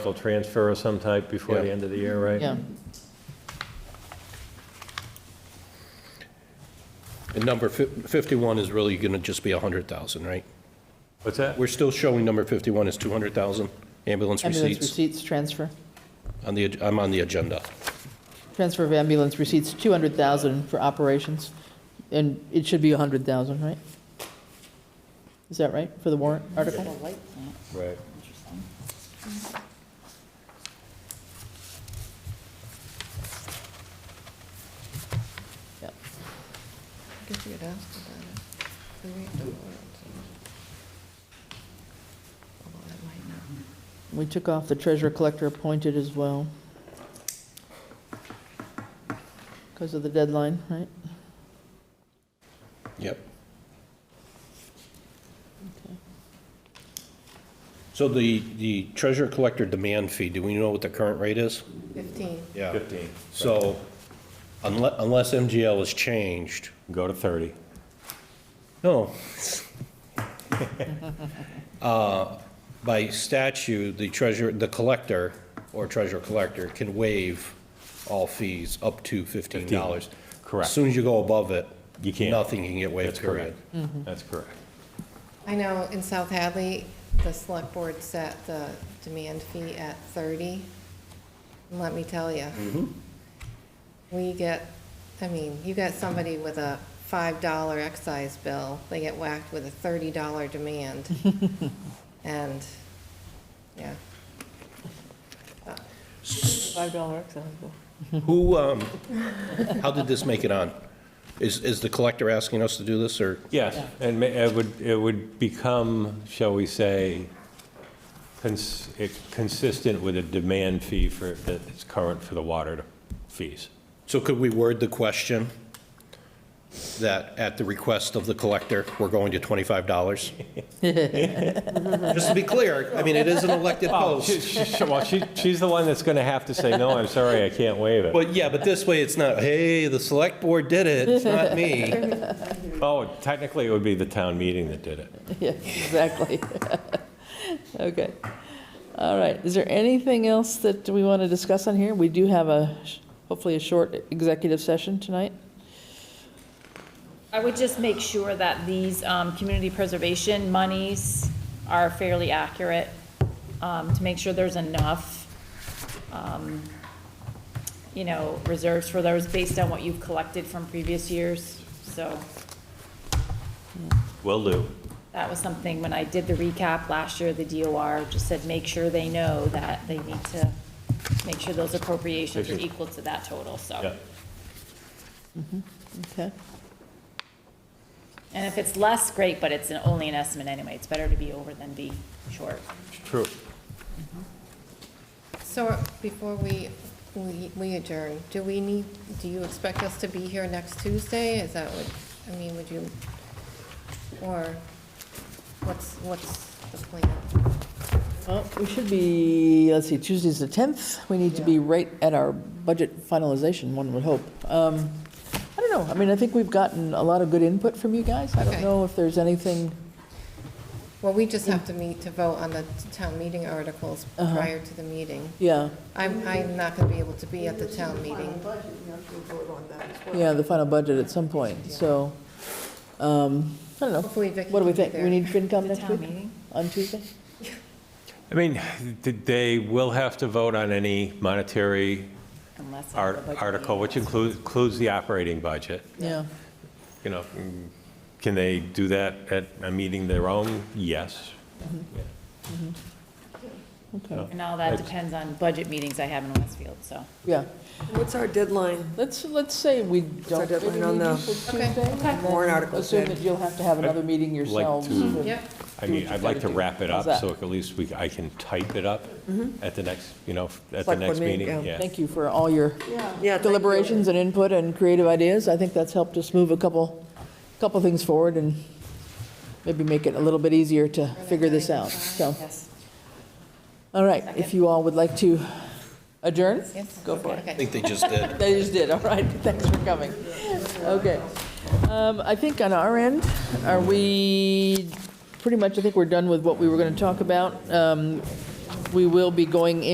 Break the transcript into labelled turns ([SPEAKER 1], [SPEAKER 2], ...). [SPEAKER 1] Full transfer of some type before the
[SPEAKER 2] Yeah.
[SPEAKER 1] end of the year, right?
[SPEAKER 3] Yeah,
[SPEAKER 2] And number fif- 51 is really going to just be 100,000, right?
[SPEAKER 1] What's that?
[SPEAKER 2] We're still showing number 51 is 200,000 ambulance
[SPEAKER 3] ambulance
[SPEAKER 2] receipts
[SPEAKER 3] receipts transfer,
[SPEAKER 2] on the, ag- I'm on the agenda.
[SPEAKER 3] transfer of ambulance receipts, 200,000 for operations, and it should be 100,000, right? Is that right, for the warrant
[SPEAKER 4] The
[SPEAKER 3] article?
[SPEAKER 4] light plant,
[SPEAKER 1] Right.
[SPEAKER 4] interesting.
[SPEAKER 3] Yeah.
[SPEAKER 5] I guess we could ask about it. We read the warrant, so- Although that might not.
[SPEAKER 3] We took off the treasurer collector appointed as well. Because of the deadline, right?
[SPEAKER 2] Yep. So the, the treasurer collector demand fee, do we know what the current rate is?
[SPEAKER 5] Fifteen.
[SPEAKER 2] Yeah.
[SPEAKER 1] 15.
[SPEAKER 2] So unless, unless MGL is changed,
[SPEAKER 1] Go to 30.
[SPEAKER 2] No. Uh, By statute, the treasurer, the collector or treasurer-collector can waive all fees up to $15.
[SPEAKER 1] correct.
[SPEAKER 2] As soon as you go above it.
[SPEAKER 1] You can't.
[SPEAKER 2] Nothing can get waived,
[SPEAKER 1] That's
[SPEAKER 2] period.
[SPEAKER 1] correct. That's correct.
[SPEAKER 5] I know in South Hadley, the select board set the demand fee at thirty. And Let me tell you. We get, I mean, you got somebody with a five dollar excise bill, they get whacked with a thirty dollar demand. And, yeah.
[SPEAKER 3] $5 excise
[SPEAKER 2] Who, um, how did this make it on? Is, is the collector asking us to do this or?
[SPEAKER 1] Yes, and ma- it would, it would become, shall we say, cons- it- consistent with a demand fee for, that's current for the water fees.
[SPEAKER 2] So could we word the question that at the request of the collector, we're going to $25? Just to be clear, I mean, it is an elected
[SPEAKER 1] She-
[SPEAKER 2] post.
[SPEAKER 1] she- she- Well, she, she's the one that's going to have to say, no, I'm sorry, I can't waive it.
[SPEAKER 2] But yeah, but this way, it's not, hey, the select board did it, it's not me.
[SPEAKER 1] Oh, technically, it would be the town meeting that did it.
[SPEAKER 3] Yes, exactly. Okay. All right. Is there anything else that we want to discuss on here? We do have a, hopefully a short executive session tonight.
[SPEAKER 4] I would just make sure that these um, community preservation monies are fairly accurate, um, to make sure there's enough, um, you know, reserves for those based on what you've collected from previous years. So
[SPEAKER 1] Will do.
[SPEAKER 4] that was something, when I did the recap last year, the DOR just said, make sure they know that they need to make sure those appropriations are equal to that total,
[SPEAKER 1] Yeah.
[SPEAKER 4] so.
[SPEAKER 3] Okay.
[SPEAKER 4] And if it's less, great, but it's an- only an estimate anyway. It's better to be over than be short.
[SPEAKER 1] True.
[SPEAKER 5] So before we, we we adjourn, do we need, do you expect us to be here next Tuesday? Is that what, I mean, would you, or what's, what's the plan?
[SPEAKER 3] Well, we should be, let's see, Tuesday's the 10th. We need to be right at our budget finalization, one would hope. Um, I don't know. I mean, I think we've gotten a lot of good input from you guys. I don't
[SPEAKER 5] Okay.
[SPEAKER 3] know if there's anything,
[SPEAKER 5] Well, we just have to meet to vote on the town meeting articles prior to the meeting.
[SPEAKER 3] yeah,
[SPEAKER 5] I'm, I'm not going to be able to be at the town meeting.
[SPEAKER 3] yeah, the final budget at some point, so, um, I don't know.
[SPEAKER 5] Hopefully Vicky
[SPEAKER 3] What do we
[SPEAKER 5] can be
[SPEAKER 3] think? We need FinCom
[SPEAKER 4] The
[SPEAKER 3] next
[SPEAKER 4] town
[SPEAKER 3] week?
[SPEAKER 4] meeting?
[SPEAKER 3] On Tuesday?
[SPEAKER 1] I mean, th- they will have to vote on any monetary
[SPEAKER 4] Unless.
[SPEAKER 1] art-
[SPEAKER 4] the budget
[SPEAKER 1] article, which
[SPEAKER 4] meeting-
[SPEAKER 1] includes, includes the operating budget.
[SPEAKER 3] Yeah.
[SPEAKER 1] You know, mm, can they do that at a meeting their own? Yes. Yeah.
[SPEAKER 3] Okay.
[SPEAKER 4] And all that depends on budget meetings I have in Westfield, so.
[SPEAKER 3] Yeah,
[SPEAKER 6] What's our deadline?
[SPEAKER 3] let's, let's say we don't
[SPEAKER 6] our
[SPEAKER 3] maybe
[SPEAKER 6] deadline
[SPEAKER 3] we
[SPEAKER 6] on
[SPEAKER 3] need
[SPEAKER 6] the-
[SPEAKER 3] till Tuesday.
[SPEAKER 5] Okay.
[SPEAKER 3] and
[SPEAKER 6] Warrant
[SPEAKER 3] then
[SPEAKER 6] article
[SPEAKER 3] Assume
[SPEAKER 6] then.
[SPEAKER 3] that you'll have to have another meeting yourselves.
[SPEAKER 1] to-
[SPEAKER 3] to-
[SPEAKER 5] Yep,
[SPEAKER 1] I mean, I'd like to wrap it
[SPEAKER 3] How's
[SPEAKER 1] up,
[SPEAKER 3] that?
[SPEAKER 1] so at least we, I can type it up at the next, you know, at the
[SPEAKER 6] Mm-hmm. Select
[SPEAKER 1] next
[SPEAKER 6] board meeting,
[SPEAKER 1] meeting,
[SPEAKER 6] yeah.
[SPEAKER 1] yeah.
[SPEAKER 3] Thank you for all your
[SPEAKER 6] Yeah, thank you.
[SPEAKER 3] deliberations and input and creative ideas. I think that's helped us move a couple, couple things forward and maybe make it a little bit easier to figure this out, so.
[SPEAKER 4] Yes.
[SPEAKER 3] All right, if you all would like to adjourn?
[SPEAKER 5] Yes.
[SPEAKER 3] Go for it.
[SPEAKER 2] I think they just did.
[SPEAKER 3] They just did, all right, thanks for coming. Okay. Um, I think on our end, are we, pretty much, I think we're done with what we were going to talk about. Um, We will be going in.